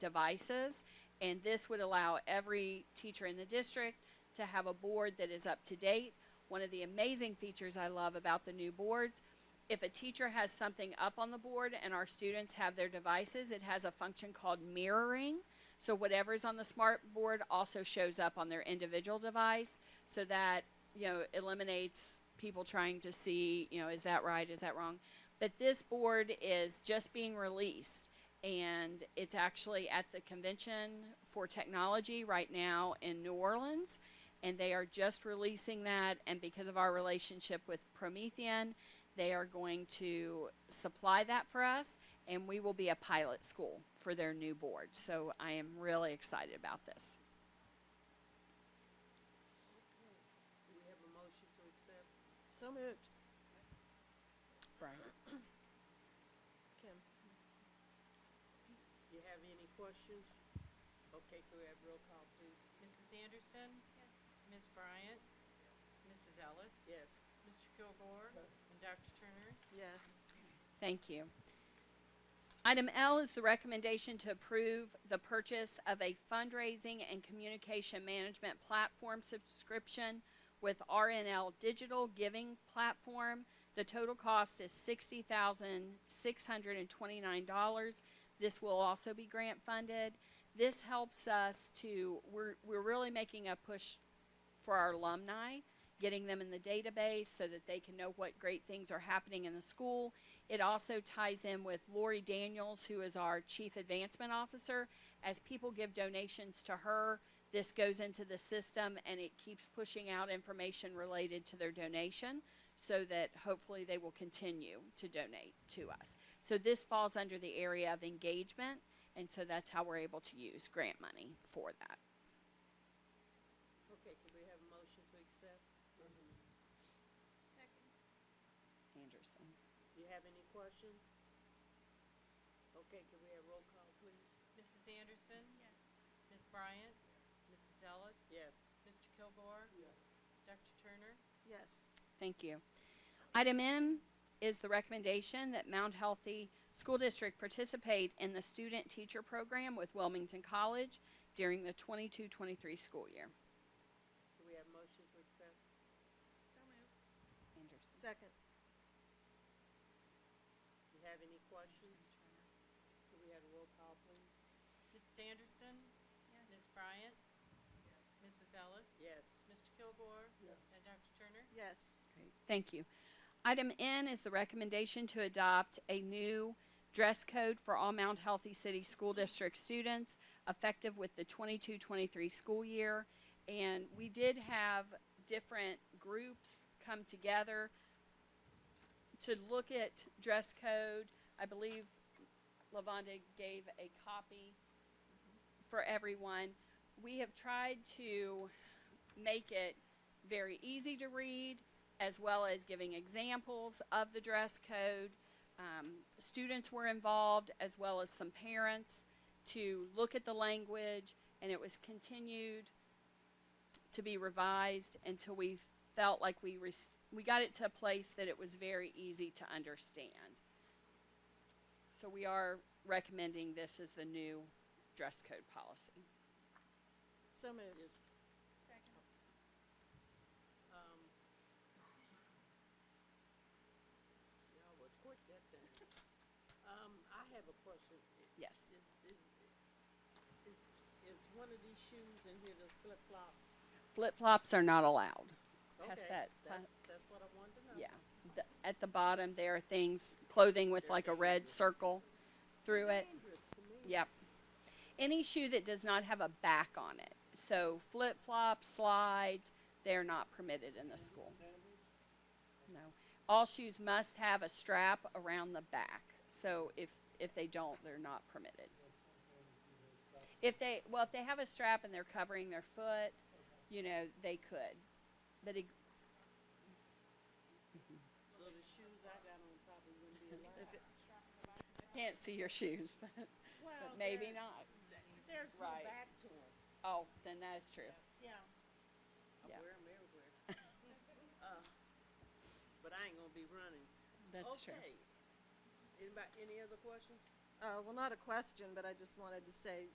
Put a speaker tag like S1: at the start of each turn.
S1: devices. And this would allow every teacher in the district to have a board that is up to date. One of the amazing features I love about the new boards, if a teacher has something up on the board and our students have their devices, it has a function called mirroring. So whatever's on the smart board also shows up on their individual device so that, you know, eliminates people trying to see, you know, is that right, is that wrong? But this board is just being released and it's actually at the convention for technology right now in New Orleans and they are just releasing that and because of our relationship with Promethean, they are going to supply that for us and we will be a pilot school for their new board. So I am really excited about this.
S2: Do we have a motion to accept? So moved.
S1: Right.
S2: Kim? You have any questions? Okay, could we have roll call, please?
S3: Mrs. Anderson? Yes. Ms. Bryant? Mrs. Ellis?
S2: Yes.
S3: Mr. Kilgore? And Dr. Turner?
S2: Yes.
S1: Thank you. Item L is the recommendation to approve the purchase of a fundraising and communication management platform subscription with RNL Digital Giving Platform. The total cost is sixty thousand six hundred and twenty-nine dollars. This will also be grant funded. This helps us to, we're, we're really making a push for our alumni, getting them in the database so that they can know what great things are happening in the school. It also ties in with Lori Daniels, who is our Chief Advancement Officer. As people give donations to her, this goes into the system and it keeps pushing out information related to their donation so that hopefully they will continue to donate to us. So this falls under the area of engagement, and so that's how we're able to use grant money for that.
S2: Okay, could we have a motion to accept?
S1: Anderson.
S2: Do you have any questions? Okay, could we have roll call, please?
S3: Mrs. Anderson? Yes. Ms. Bryant? Mrs. Ellis?
S2: Yes.
S3: Mr. Kilgore?
S2: Yes.
S3: Dr. Turner?
S2: Yes.
S1: Thank you. Item M is the recommendation that Mount Healthy School District participate in the student teacher program with Wilmington College during the 22-23 school year.
S2: Could we have a motion to accept?
S3: So moved.
S2: Second. Do you have any questions? Could we have a roll call, please?
S3: Mrs. Anderson? Yes. Ms. Bryant? Mrs. Ellis?
S2: Yes.
S3: Mr. Kilgore?
S2: Yes.
S3: And Dr. Turner?
S2: Yes.
S1: Great, Thank you. Item N is the recommendation to adopt a new dress code for all Mount Healthy City School District students effective with the 22-23 school year. And we did have different groups come together to look at dress code. I believe Lavonda gave a copy for everyone. We have tried to make it very easy to read, as well as giving examples of the dress code. Um, students were involved, as well as some parents, to look at the language, and it was continued to be revised until we felt like we rec- we got it to a place that it was very easy to understand. So we are recommending this as the new dress code policy.
S2: So moved. Um. Y'all were quick that thing. Um, I have a question. I-
S1: Yes.
S2: Is, is, is, is one of these shoes in here the flip flops?
S1: Flip flops are not allowed. Pass
S2: Okay,
S1: that pla-
S2: That's, that's what I wanted to know.
S1: Yeah. The, at the bottom, there are things, clothing with like a red circle through it.
S2: Dangerous to me.
S1: Yep. Any shoe that does not have a back on it. So flip flops, slides, they're not permitted in the school. No. All shoes must have a strap around the back. So if, if they don't, they're not permitted. If they, well, if they have a strap and they're covering their foot, you know, they could. But it,
S2: So the shoes I got on probably wouldn't be allowed.
S1: can't see your shoes, but,
S2: Well,
S1: but maybe
S2: there-
S1: not.
S2: There's no
S1: Right.
S2: back to them.
S1: Oh, then that is true.
S2: Yeah. I
S1: Yeah.
S2: wear 'em everywhere. Uh, But I ain't gonna be running.
S1: That's true.
S2: Okay. Anybody, any other questions?
S4: Uh, well, not a question, but I just wanted to say